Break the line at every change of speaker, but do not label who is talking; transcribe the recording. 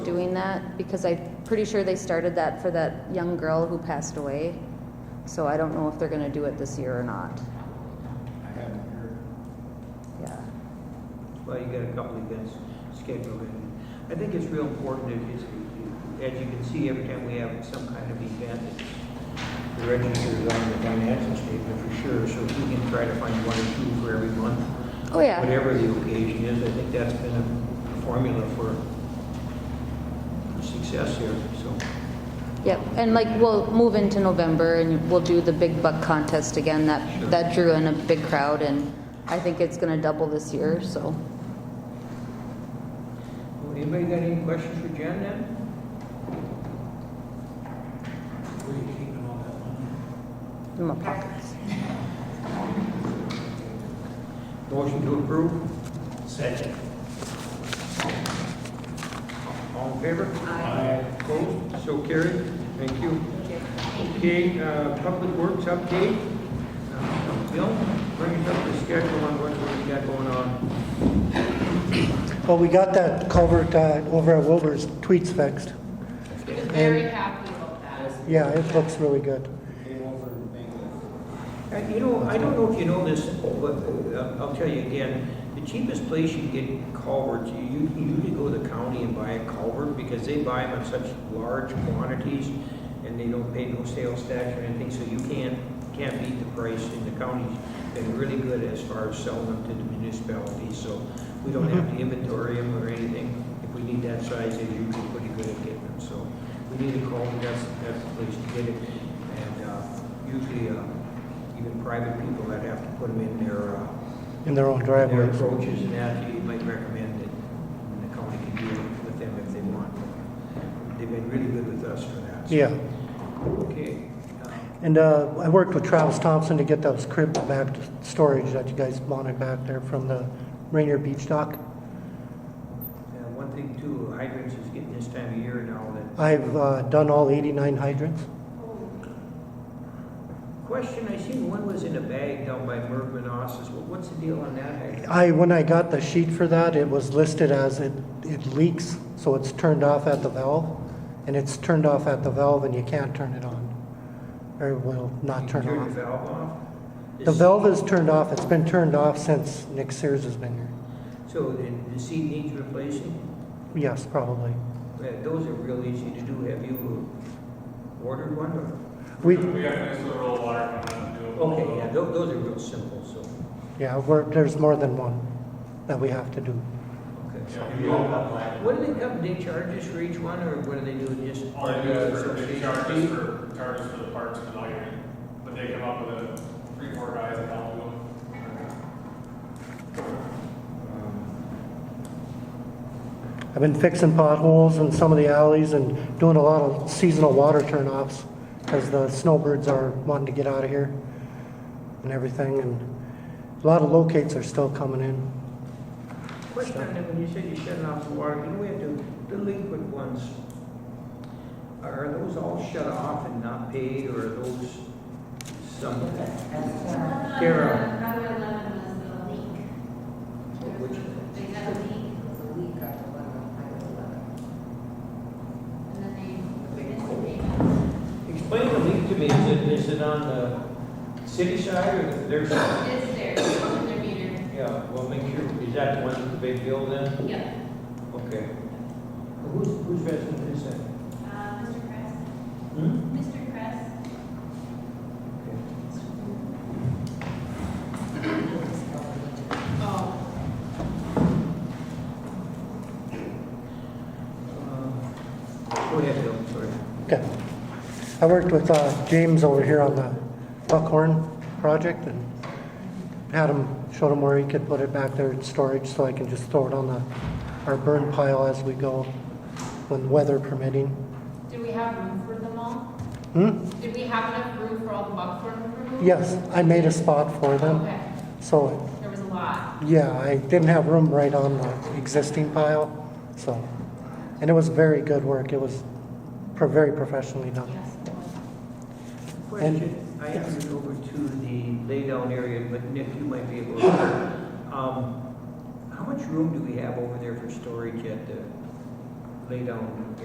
doing that because I'm pretty sure they started that for that young girl who passed away. So I don't know if they're gonna do it this year or not.
I haven't heard.
Yeah.
Well, you got a couple of events scheduled, and I think it's real important that it's, as you can see, every time we have some kind of event, it's- the register is on the financial statement for sure, so if we can try to find one or two for every month.
Oh, yeah.
Whatever the occasion is, I think that's been a formula for for success here, so.
Yep, and like, we'll move into November and we'll do the big buck contest again,
Sure.
that, that drew in a big crowd and I think it's gonna double this year, so.
Well, Anybody got any questions for Jen then?
Where are you keeping all that money?
in my pockets.
Motion to approve,
Second.
all in favor?
Aye.
Opposed? So carried. Thank you. Okay, uh, Public Works update. Uh, Bill, bring us up to schedule on what we got going on.
Well, we got that culvert uh, over at Wilbur's tweets fixed.
He was very happy about that.
Yeah, it looks really good.
Uh, You know, I don't know if you know this, but uh, I'll tell you again, the cheapest place you can get culverts, you you can usually go to the county and buy a culvert because they buy them in such large quantities and they don't pay no sales tax or anything, so you can't, can't beat the price. And the county's been really good as far as selling them to the municipalities, so we don't have to inventory them or anything. If we need that size, they're usually pretty good at getting them, so we need a culvert, that's, that's the place to get it. And uh, usually, uh, even private people that have to put them in their, uh,
In their own
their
driveways.
approaches and that, you might recommend that the county can deal with them if they want. They've been really good with us for that. so-
Yeah.
Okay. um,
And uh, I worked with Travis Thompson to get those cribs back to storage that you guys wanted back there from the Rainier Beach dock.
and One thing too, hydrants is getting this time of year now that,
I've uh, done all 89 hydrants.
question, I seen one was in a bag down by Merv Manasses. Well, What's the deal on that hydrant?
I, when I got the sheet for that, it was listed as it, it leaks, so it's turned off at the valve. And it's turned off at the valve and you can't turn it on. Or it will not turn
You
off.
Turn the valve off?
The valve is turned off. It's been turned off since Nick Sears has been here.
So the the seat needs replacing?
Yes, probably.
Yeah, Those are real easy to do. Have you ordered one or?
We,
We got nice little water coming out to do it.
Okay, yeah, tho- those are real simple, so,
yeah, we're, there's more than one that we have to do.
okay.
Yeah, we all have like,
What do they come, they charge us for each one, or what do they do, just?
all they do is for, they
association
charge us
fee?
for, charge us for the parts and the lighting, but they come up with a three, four guys that help them.
I've been fixing potholes in some of the alleys and doing a lot of seasonal water turnoffs because the snowbirds are wanting to get out of here and everything. And a lot of locates are still coming in.
Question on that, when you said you're shutting off the water, you know, we have the delinquent ones. Are those all shut off and not paid, or are those some? Kara,
Highway eleven was the leak.
Which-
They had a leak, and then they, they missed the payment.
explain the leak to me, is it, is it on the city side, or there's, yeah,
It's there, it's in their meter.
well, make sure, is that the one with the big bill then?
Yeah.
Okay. Who's, who's resident is that?
Uh, Mr. Kress,
Hmm?
Mr. Kress, oh,
Uh, Go ahead, Bill, sorry.
Okay. I worked with uh, James over here on the Buckhorn project and had him, showed him where he could put it back there in storage so I can just throw it on the, our burn pile as we go when weather permitting.
did we have room for them all?
Hmm?
Did we have enough room for all the buckthorn removals?
Yes, I made a spot for them.
Okay,
So
there was a lot.
Yeah, I didn't have room right on the existing pile, so, and it was very good work. It was pro- very professionally done.
Yes. it was.
Question, I
yes.
asked it over to the laydown area, but Nick, you might be able to. Um, How much room do we have over there for storage at the lay down